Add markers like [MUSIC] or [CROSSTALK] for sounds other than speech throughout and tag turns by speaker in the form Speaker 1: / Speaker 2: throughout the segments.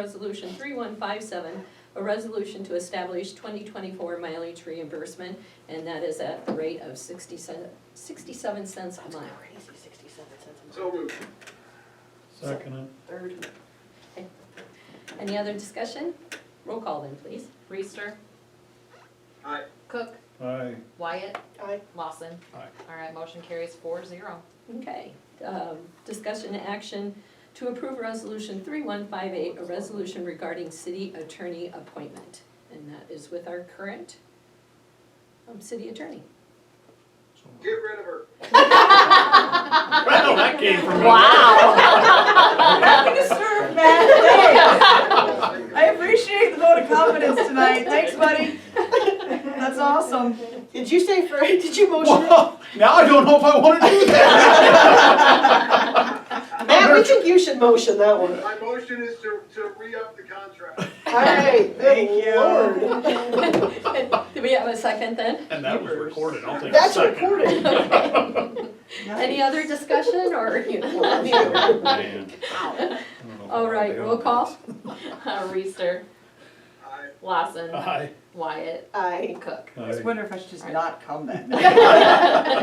Speaker 1: Resolution 3157, a resolution to establish 2024 mileage reimbursement, and that is at the rate of 60 cent- 67 cents a mile.
Speaker 2: Crazy, sixty-seven cents a
Speaker 3: So
Speaker 2: mile.
Speaker 3: moved.
Speaker 4: Second it,
Speaker 2: Third,
Speaker 1: Any other discussion? Roll call then, please.
Speaker 5: Reister,
Speaker 3: Aye.
Speaker 5: Cook,
Speaker 4: aye.
Speaker 5: Wyatt,
Speaker 2: aye,
Speaker 5: Lawson.
Speaker 4: Aye.
Speaker 5: All right, motion carries four zero.
Speaker 1: Okay, um, discussion and action to approve Resolution 3158, a resolution regarding city attorney appointment. And that is with our current um, city attorney.
Speaker 4: So-
Speaker 3: Get rid of her.
Speaker 4: Well, that came from.
Speaker 6: Happy to serve, Matt. Thanks. I appreciate the vote of confidence tonight. Thanks, buddy. That's awesome.
Speaker 2: did you say for, [LAUGHS] did you motion it?
Speaker 4: Well, [LAUGHS] now I don't know if I wanna do that.
Speaker 2: Matt, we think you should motion that one.
Speaker 3: My motion is to, to re-up the contract.
Speaker 2: Hey,
Speaker 6: Thank you.
Speaker 1: Do we have a second then?
Speaker 4: And that was recorded, I'll take a
Speaker 2: That's
Speaker 4: second. [LAUGHS]
Speaker 2: recorded.
Speaker 1: Any other discussion or? you-
Speaker 4: Oh, Man.
Speaker 1: All right, roll call.
Speaker 5: Reister,
Speaker 3: Aye.
Speaker 5: Lawson,
Speaker 4: Aye.
Speaker 5: Wyatt,
Speaker 2: Aye.
Speaker 5: Cook.
Speaker 6: I just
Speaker 4: Aye.
Speaker 6: wonder if I should just not come [LAUGHS] that night.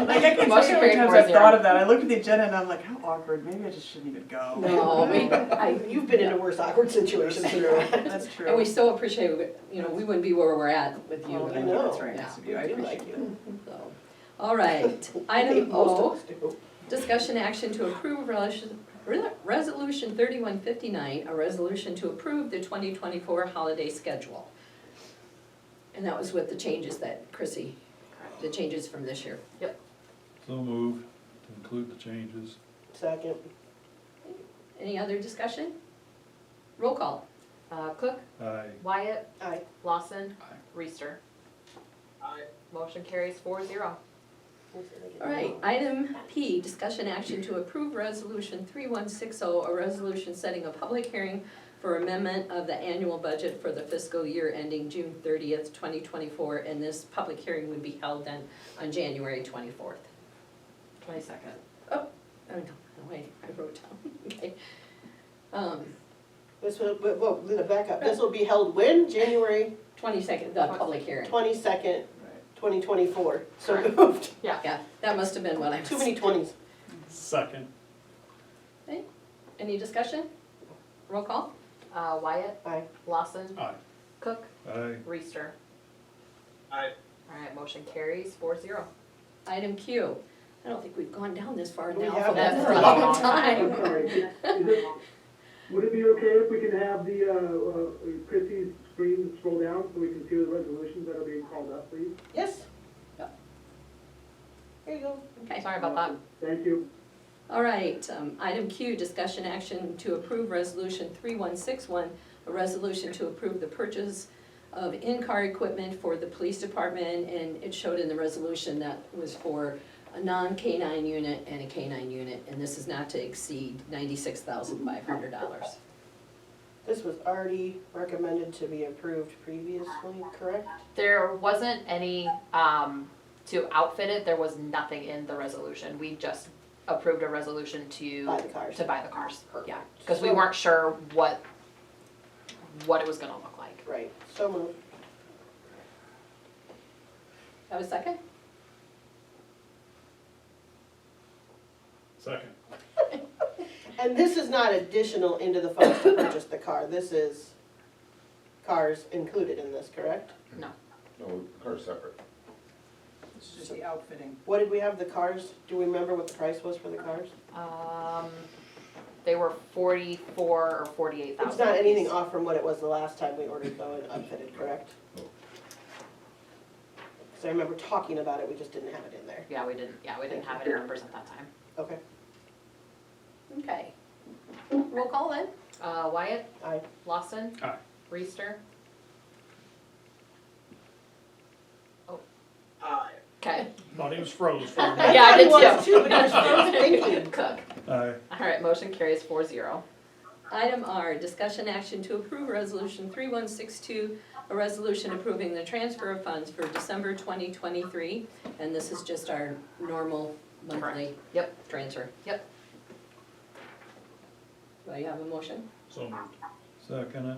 Speaker 6: Like, I can tell you how many times I've thought of that. I looked at the agenda and I'm like, how awkward, maybe I just shouldn't even go.
Speaker 1: No, we, I,
Speaker 2: You've been in a worse awkward situation
Speaker 6: That's
Speaker 2: than
Speaker 6: true. [LAUGHS]
Speaker 2: that.
Speaker 6: That's true.
Speaker 1: and we so appreciate, it, you know, we wouldn't be where we're at with
Speaker 6: Oh,
Speaker 1: you.
Speaker 2: I
Speaker 6: thank
Speaker 2: know.
Speaker 6: That's very nice of you, I
Speaker 2: We do
Speaker 6: appreciate
Speaker 2: like
Speaker 6: it.
Speaker 1: so. All [LAUGHS] right,
Speaker 2: I think
Speaker 1: item
Speaker 2: most
Speaker 1: O,
Speaker 2: of us do.
Speaker 1: discussion action to approve resolution, resolution thirty-one fifty-nine, a resolution to approve the twenty twenty-four holiday schedule. And that was with the changes that Chrissy, the changes from this year.
Speaker 4: So moved to include the changes.
Speaker 2: Second,
Speaker 1: Any other discussion? Roll call.
Speaker 5: Uh, Cook,
Speaker 4: Aye.
Speaker 5: Wyatt,
Speaker 2: aye.
Speaker 5: Lawson,
Speaker 4: Aye.
Speaker 5: Reister.
Speaker 3: Aye.
Speaker 5: Motion carries four zero.
Speaker 1: All right, item P, discussion action to approve resolution three one six oh, a resolution setting a public hearing for amendment of the annual budget for the fiscal year ending June thirtieth, twenty twenty-four, and this public hearing would be held then on January twenty-fourth.
Speaker 5: Twenty-second.
Speaker 1: Oh, no, no, wait, I wrote down, [LAUGHS] okay. Um,
Speaker 2: This will, whoa, whoa, Lena, back up. This will be held when? January
Speaker 1: twenty-second, the public hearing,
Speaker 2: twenty-second, twenty twenty-four. So
Speaker 5: Correct.
Speaker 2: moved.
Speaker 1: yeah, that must have been what I was.
Speaker 2: Too many twenties.
Speaker 4: Second.
Speaker 1: Any discussion? Roll call?
Speaker 5: Uh, Wyatt,
Speaker 2: Aye.
Speaker 5: Lawson,
Speaker 4: Aye.
Speaker 5: Cook,
Speaker 4: Aye.
Speaker 5: Reister.
Speaker 3: Aye.
Speaker 5: All right, motion carries four zero.
Speaker 1: Item Q, I don't think we've gone down this far
Speaker 2: We
Speaker 1: now for
Speaker 2: haven't.
Speaker 1: that
Speaker 2: [LAUGHS]
Speaker 5: That's
Speaker 1: for a
Speaker 5: a
Speaker 1: long
Speaker 5: long
Speaker 1: time.
Speaker 7: Would it be okay if we can have the, uh, uh, Chrissy's screen scroll down so we can see the resolutions that are being called up, please?
Speaker 2: Yes?
Speaker 1: Yep.
Speaker 2: There you go.
Speaker 1: Okay,
Speaker 5: Sorry about that.
Speaker 7: Thank you.
Speaker 1: all right, um, item Q, discussion action to approve resolution three one six one, a resolution to approve the purchase of in-car equipment for the police department, and it showed in the resolution that was for a non-canine unit and a canine unit, and this is not to exceed ninety-six thousand five hundred dollars.
Speaker 2: This was already recommended to be approved previously, correct?
Speaker 5: There wasn't any, um, to outfit it, there was nothing in the resolution. We just approved a resolution to.
Speaker 2: Buy the cars.
Speaker 5: To buy the cars, yeah, because we
Speaker 2: So-
Speaker 5: weren't sure what, what it was gonna look like.
Speaker 2: Right, so moved.
Speaker 1: Have a second?
Speaker 4: Second.
Speaker 2: And this is not additional into the funds to purchase the car, this is cars included in this, correct?
Speaker 8: No, or separate.
Speaker 6: It's just the outfitting.
Speaker 2: What did we have the cars, do we remember what the price was for the cars?
Speaker 5: Um, they were forty-four or forty-eight thousand.
Speaker 2: It's not anything off from what it was the last time we ordered though and unfitted, correct?
Speaker 8: No.
Speaker 2: So I remember talking about it, we just didn't have it in there,
Speaker 5: Yeah, we didn't, yeah, we didn't have it in numbers at that time.
Speaker 2: okay,
Speaker 1: Okay. Roll call then?
Speaker 5: Uh, Wyatt,
Speaker 2: aye.
Speaker 5: Lawson.
Speaker 4: Aye.
Speaker 5: Reister.
Speaker 3: Aye.
Speaker 5: Okay.
Speaker 4: Thought he was froze for
Speaker 5: [LAUGHS]
Speaker 4: a minute.
Speaker 5: Yeah, I did
Speaker 2: Everyone was
Speaker 5: too.
Speaker 2: too, but I was still thinking.
Speaker 5: Cook.
Speaker 4: Aye.
Speaker 5: All right, motion carries four zero.
Speaker 1: Item R, discussion action to approve resolution 3162, a resolution approving the transfer of funds for December 2023. And this is just our normal monthly
Speaker 5: Yep.
Speaker 1: transfer.
Speaker 5: Yep.
Speaker 1: Do I have a motion?
Speaker 4: So moved. Second it.